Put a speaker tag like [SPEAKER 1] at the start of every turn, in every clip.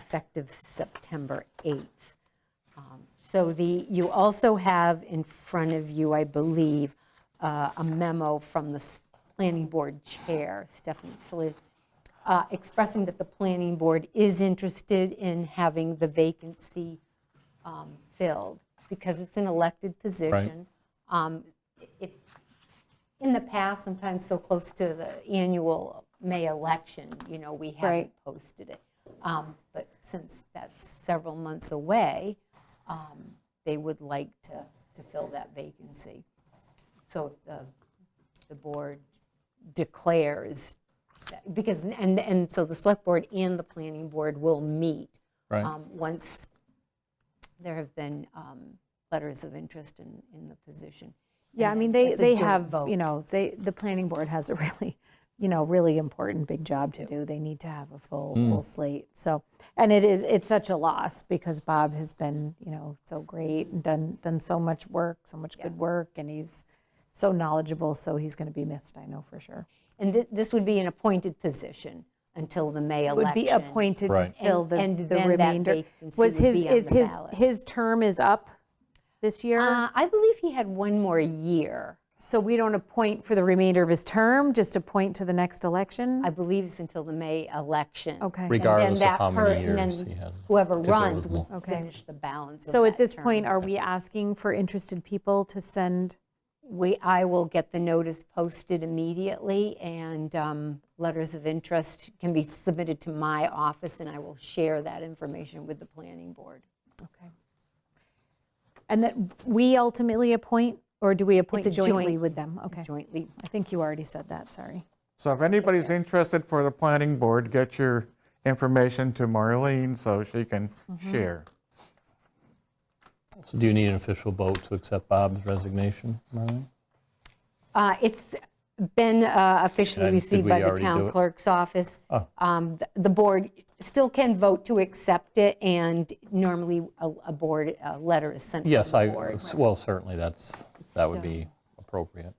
[SPEAKER 1] effective September 8th. Um, So the, you also have in front of you, I believe, uh, a memo from the s- planning board chair, Stephanie Slith, uh, expressing that the planning board is interested in having the vacancy um, filled, because it's an elected position. Um, It in the past, sometimes so close to the annual May election, you know, we haven't
[SPEAKER 2] Right.
[SPEAKER 1] posted it. Um, But since that's several months away, um, they would like to, to fill that vacancy. So uh, if the, the board declares, that- because, and, and so the select board and the planning board will meet.
[SPEAKER 3] Right.
[SPEAKER 1] um, Once there have been um, letters of interest in, in the position.
[SPEAKER 2] Yeah, I
[SPEAKER 1] And
[SPEAKER 2] mean,
[SPEAKER 1] then
[SPEAKER 2] they,
[SPEAKER 1] it's a
[SPEAKER 2] they
[SPEAKER 1] joint
[SPEAKER 2] have,
[SPEAKER 1] vote.
[SPEAKER 2] you know, they, the planning board has a really, you know, really important big job to do. They need to have a full, full slate. So, and it is, it's such a loss because Bob has been, you know, so great and done, done so much work, so much good work, and he's so knowledgeable, so he's going to be missed, I know for sure.
[SPEAKER 1] And thi- this would be an appointed position until the May election.
[SPEAKER 2] Would be appointed to
[SPEAKER 3] Right.
[SPEAKER 2] fill
[SPEAKER 1] And-
[SPEAKER 2] the
[SPEAKER 1] and
[SPEAKER 2] the
[SPEAKER 1] then that
[SPEAKER 2] remainder.
[SPEAKER 1] vacancy
[SPEAKER 2] Was
[SPEAKER 1] would
[SPEAKER 2] his,
[SPEAKER 1] be on
[SPEAKER 2] is
[SPEAKER 1] the
[SPEAKER 2] his,
[SPEAKER 1] ballot.
[SPEAKER 2] his term is up this year?
[SPEAKER 1] Uh, I believe he had one more year.
[SPEAKER 2] So we don't appoint for the remainder of his term, just appoint to the next election?
[SPEAKER 1] I believe it's until the May election.
[SPEAKER 2] Okay.
[SPEAKER 1] And then
[SPEAKER 3] Regardless of
[SPEAKER 1] that
[SPEAKER 3] how many
[SPEAKER 1] per- and then
[SPEAKER 3] years he had,
[SPEAKER 1] Whoever
[SPEAKER 3] if it
[SPEAKER 1] runs
[SPEAKER 3] was
[SPEAKER 1] would
[SPEAKER 3] more.
[SPEAKER 2] Okay.
[SPEAKER 1] finish the balance of
[SPEAKER 2] So at
[SPEAKER 1] that
[SPEAKER 2] this
[SPEAKER 1] term.
[SPEAKER 2] point, are we asking for interested people to send?
[SPEAKER 1] We, I will get the notice posted immediately, and um, letters of interest can be submitted to my office, and I will share that information with the planning board.
[SPEAKER 2] Okay. And that we ultimately appoint, or do we appoint
[SPEAKER 1] a joint-
[SPEAKER 2] jointly with them? Okay,
[SPEAKER 1] Jointly,
[SPEAKER 2] I think you already said that, sorry.
[SPEAKER 4] So if anybody's interested for the planning board, get your information to Marlene so she can share.
[SPEAKER 3] So do you need an official vote to accept Bob's resignation, Marlene?
[SPEAKER 1] Uh, It's been uh, officially
[SPEAKER 3] And did
[SPEAKER 1] received
[SPEAKER 3] we
[SPEAKER 1] by the
[SPEAKER 3] already do
[SPEAKER 1] town
[SPEAKER 3] it?
[SPEAKER 1] clerk's office.
[SPEAKER 3] Oh.
[SPEAKER 1] Um, th- The board still can vote to accept it, and normally a a board, a letter is sent to
[SPEAKER 3] Yes, I,
[SPEAKER 1] the board.
[SPEAKER 3] well, certainly, that's, that would be appropriate.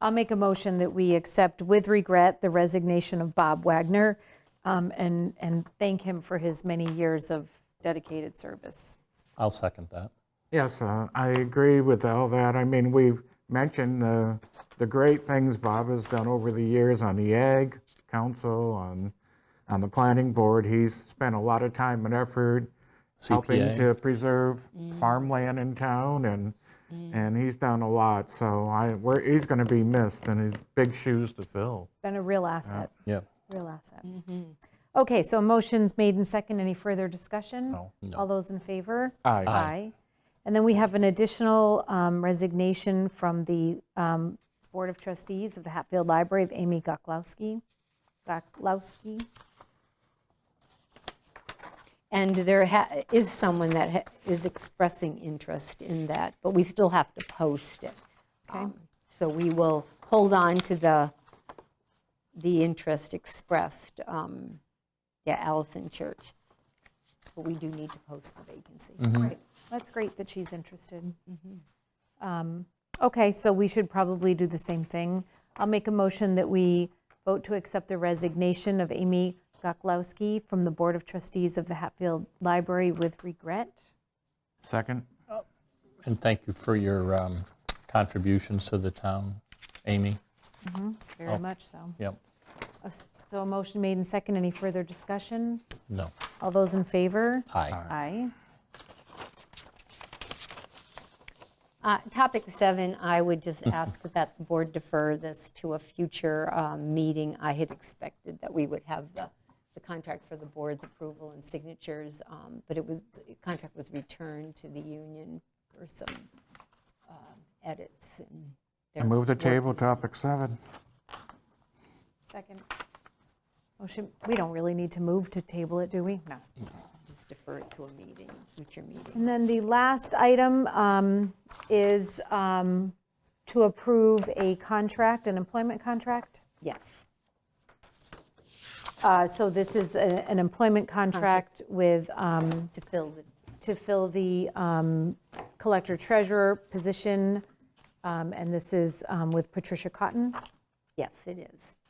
[SPEAKER 2] I'll make a motion that we accept with regret the resignation of Bob Wagner um, and, and thank him for his many years of dedicated service.
[SPEAKER 3] I'll second that.
[SPEAKER 4] Yes, uh, I agree with all that. I mean, we've mentioned the, the great things Bob has done over the years on the Ag Council, on, on the planning board. He's spent a lot of time and effort helping
[SPEAKER 3] CPA.
[SPEAKER 4] to preserve farmland in town, and, and he's done a lot. So I, we're, he's going to be missed, and he's big shoes to fill.
[SPEAKER 2] Been a real asset,
[SPEAKER 3] Yeah.
[SPEAKER 2] real asset.
[SPEAKER 4] Mm-hmm.
[SPEAKER 2] Okay, so a motion's made and second. Any further discussion?
[SPEAKER 4] No.
[SPEAKER 2] All those in favor?
[SPEAKER 4] Aye. Aye.
[SPEAKER 2] Aye. And then we have an additional um, resignation from the um, Board of Trustees of the Hatfield Library of Amy Goklowski. Goklowski.
[SPEAKER 1] And there ha- is someone that ha- is expressing interest in that, but we still have to post it. Um, So we will hold on to the, the interest expressed, um, yeah, Allison Church. But we do need to post the vacancy.
[SPEAKER 2] Right. That's great that she's interested. Um, Okay, so we should probably do the same thing. I'll make a motion that we vote to accept the resignation of Amy Goklowski from the Board of Trustees of the Hatfield Library with regret.
[SPEAKER 4] Second?
[SPEAKER 3] And thank you for your um, contributions to the town, Amy.
[SPEAKER 2] Very much so.
[SPEAKER 3] Yep,
[SPEAKER 2] A s- So a motion made and second. Any further discussion?
[SPEAKER 3] no,
[SPEAKER 2] All those in favor?
[SPEAKER 3] aye.
[SPEAKER 2] Aye.
[SPEAKER 1] Uh, Topic seven, I would just
[SPEAKER 4] Mm-hmm.
[SPEAKER 1] ask that the board defer this to a future um, meeting. I had expected that we would have the, the contract for the board's approval and signatures, um, but it was, the contract was returned to the union for some um, edits. and
[SPEAKER 4] I move the table, topic seven.
[SPEAKER 2] Second. Motion, we don't really need to move to table it, do we? No.
[SPEAKER 1] Just defer it to a meeting, future meeting.
[SPEAKER 2] And then the last item um, is um, to approve a contract, an employment contract.
[SPEAKER 1] Yes.
[SPEAKER 2] Uh, So this is a- an employment contract with, um,
[SPEAKER 1] To fill the,
[SPEAKER 2] to fill the um, collector treasurer position, um, and this is um, with Patricia Cotton.
[SPEAKER 1] yes, it is.